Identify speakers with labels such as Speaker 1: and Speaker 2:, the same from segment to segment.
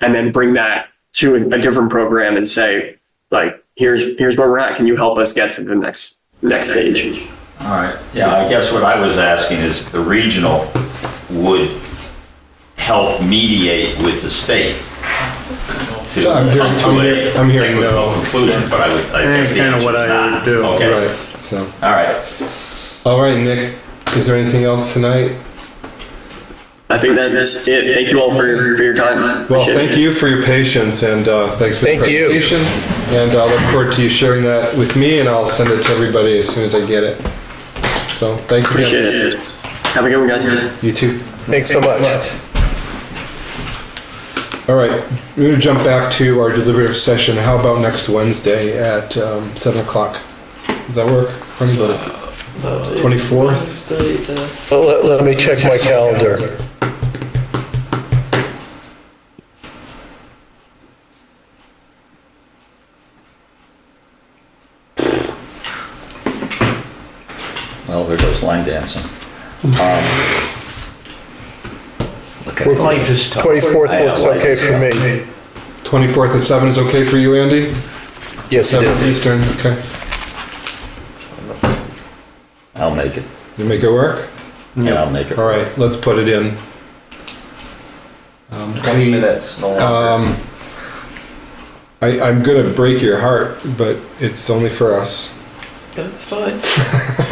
Speaker 1: and then bring that to a, a different program and say, like, here's here's where we're at. Can you help us get to the next next stage?
Speaker 2: All right, yeah, I guess what I was asking is the regional would help mediate with the state. to-
Speaker 3: So I'm hearing-
Speaker 2: to
Speaker 3: I'm
Speaker 2: a
Speaker 3: hearing- I'm hearing
Speaker 2: technical
Speaker 3: no.
Speaker 2: Conclusion, but I would, I guess
Speaker 4: That's
Speaker 2: the
Speaker 4: kind of
Speaker 2: answer
Speaker 4: what
Speaker 2: is
Speaker 4: I
Speaker 2: not.
Speaker 4: would do.
Speaker 2: Okay,
Speaker 3: Right. So,
Speaker 2: all right.
Speaker 3: all right, Nick. Is there anything else tonight?
Speaker 1: I think that is it. Thank you all for for your time.
Speaker 3: Well,
Speaker 1: Appreciate
Speaker 3: thank
Speaker 1: it.
Speaker 3: you for your patience and uh, thanks for the
Speaker 5: Thank you.
Speaker 3: presentation. And I look forward to you sharing that with me, and I'll send it to everybody as soon as I get it. So thanks again.
Speaker 1: Appreciate it. Have a good one, guys.
Speaker 3: You too.
Speaker 5: Thanks so much.
Speaker 3: All right, we're gonna jump back to our deliberative session. How about next Wednesday at um, seven o'clock? Does that work? for anybody? Twenty-fourth.
Speaker 5: Well, Let, let me check my calendar.
Speaker 2: Well, there goes line dancing. Um,
Speaker 6: Life is tough.
Speaker 5: 24th looks okay for me.
Speaker 3: Twenty-fourth at seven is okay for you, Andy?
Speaker 5: Yes, it
Speaker 3: Seven
Speaker 5: is.
Speaker 3: Eastern. Okay.
Speaker 2: I'll make it.
Speaker 3: You make it work.
Speaker 2: Yeah, I'll make it.
Speaker 3: All right, let's put it in. Um, we-
Speaker 6: minutes, no
Speaker 3: Um, I, I'm gonna break your heart, but it's only for us.
Speaker 7: That's fine.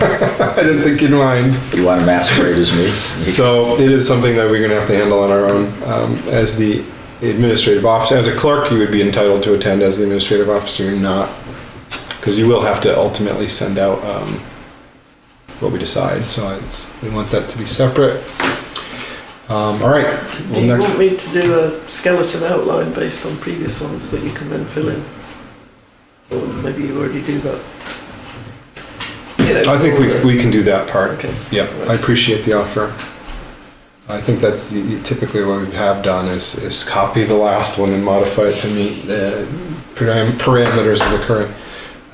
Speaker 3: I didn't think you'd mind.
Speaker 2: You want to masquerade as me?
Speaker 3: So it is something that we're gonna have to handle on our own. Um, as the administrative officer, as a clerk, you would be entitled to attend. As the administrative officer, you're not, because you will have to ultimately send out um, what we decide. So it's, we want that to be separate. Um, all right.
Speaker 7: Do
Speaker 3: Well,
Speaker 7: you
Speaker 3: next.
Speaker 7: want me to do a skeleton outline based on previous ones that you can then fill in? Or maybe you already do that? You know,
Speaker 3: I think we,
Speaker 7: for-
Speaker 3: we can do that part.
Speaker 7: Okay.
Speaker 3: Yeah, I appreciate the offer. I think that's y- y- typically what we have done is, is copy the last one and modify it to meet the param- parameters of the current.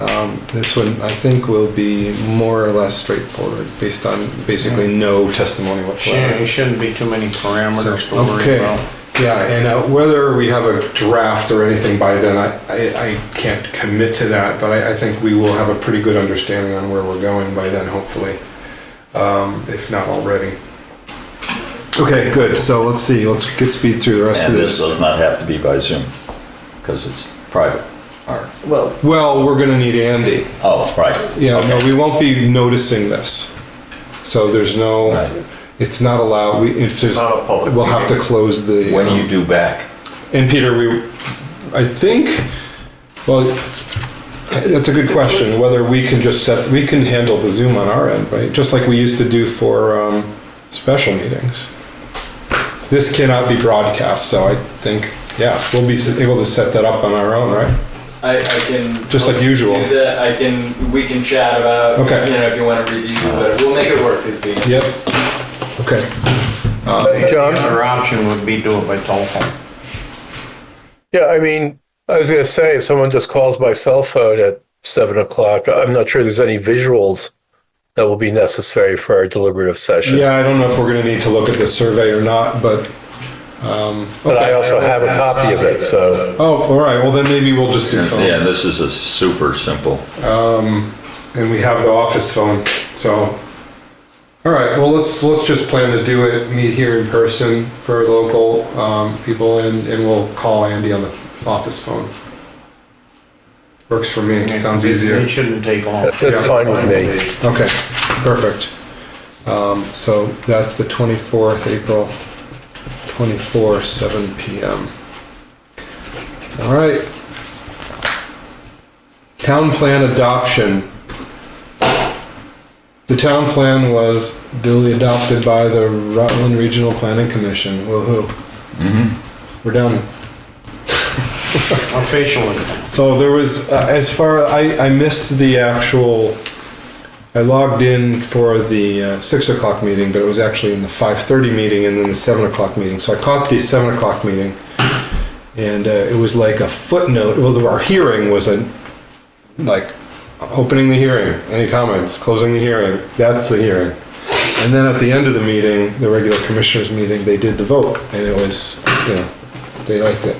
Speaker 3: Um, this one, I think, will be more or less straightforward, based on basically no testimony
Speaker 4: Yeah,
Speaker 3: whatsoever.
Speaker 4: there shouldn't be too many
Speaker 3: So,
Speaker 4: parameters to worry
Speaker 3: Okay,
Speaker 4: about.
Speaker 3: yeah, and uh, whether we have a draft or anything by then, I, I, I can't commit to that, but I, I think we will have a pretty good understanding on where we're going by then, hopefully, um, if not already. Okay, good, so let's see, let's get speed through the rest of
Speaker 2: And this uh,
Speaker 3: this.
Speaker 2: does not have to be by Zoom, because it's private. All right.
Speaker 7: Well,
Speaker 3: Well, we're gonna need Andy.
Speaker 2: Oh, right.
Speaker 3: Yeah, no,
Speaker 2: Okay.
Speaker 3: we won't be noticing this. So there's
Speaker 2: Right.
Speaker 3: no, it's not allowed, we, if there's,
Speaker 4: not a public
Speaker 3: we'll have to
Speaker 4: meeting.
Speaker 3: close the.
Speaker 2: When do
Speaker 3: um,
Speaker 2: you do back?
Speaker 3: And Peter, we, I think, well, that's a good question, whether we can just set, we can handle the Zoom on our end, right? Just like we used to do for, um, special meetings. This cannot be broadcast, so I think, yeah, we'll be able to set that up on our own, right?
Speaker 8: I, I can.
Speaker 3: Just like usual.
Speaker 8: Do that, I can, we can chat about,
Speaker 3: Okay.
Speaker 8: you know, if you want to review, but we'll make it work this evening.
Speaker 3: Yep. Okay,
Speaker 5: John?
Speaker 4: The other option would be do it by telephone.
Speaker 5: Yeah, I mean, I was gonna say, if someone just calls my cell phone at seven o'clock, I'm not sure there's any visuals that will be necessary for our deliberative session.
Speaker 3: yeah, I don't know if we're gonna need to look at this survey or not, but, um,
Speaker 5: But
Speaker 3: okay.
Speaker 5: I also have a copy of it, so
Speaker 3: Oh, all right, well then maybe we'll just do phone.
Speaker 2: Yeah, this is a super simple.
Speaker 3: um, and we have the office phone, so. All right, well, let's, let's just plan to do it, meet here in person for local, um, people and, and we'll call Andy on the office phone. Works for me, sounds
Speaker 4: It-
Speaker 3: easier.
Speaker 4: It shouldn't take long.
Speaker 5: that's fine with me.
Speaker 3: Okay, perfect. Um, so that's the twenty-fourth, April twenty-four, seven PM. All right. Town plan adoption. The town plan was duly adopted by the Rutland Regional Planning Commission, woo-hoo. We're done.
Speaker 4: Officially.
Speaker 3: So there was, uh, as far, I, I missed the actual, I logged in for the uh, six o'clock meeting, but it was actually in the five thirty meeting and then the seven o'clock meeting. So I caught the seven o'clock meeting. And uh, it was like a footnote, well, our hearing was a, like, opening the hearing, any comments, closing the hearing, that's the hearing. And then at the end of the meeting, the regular commissioners meeting, they did the vote and it was, you know, they liked it.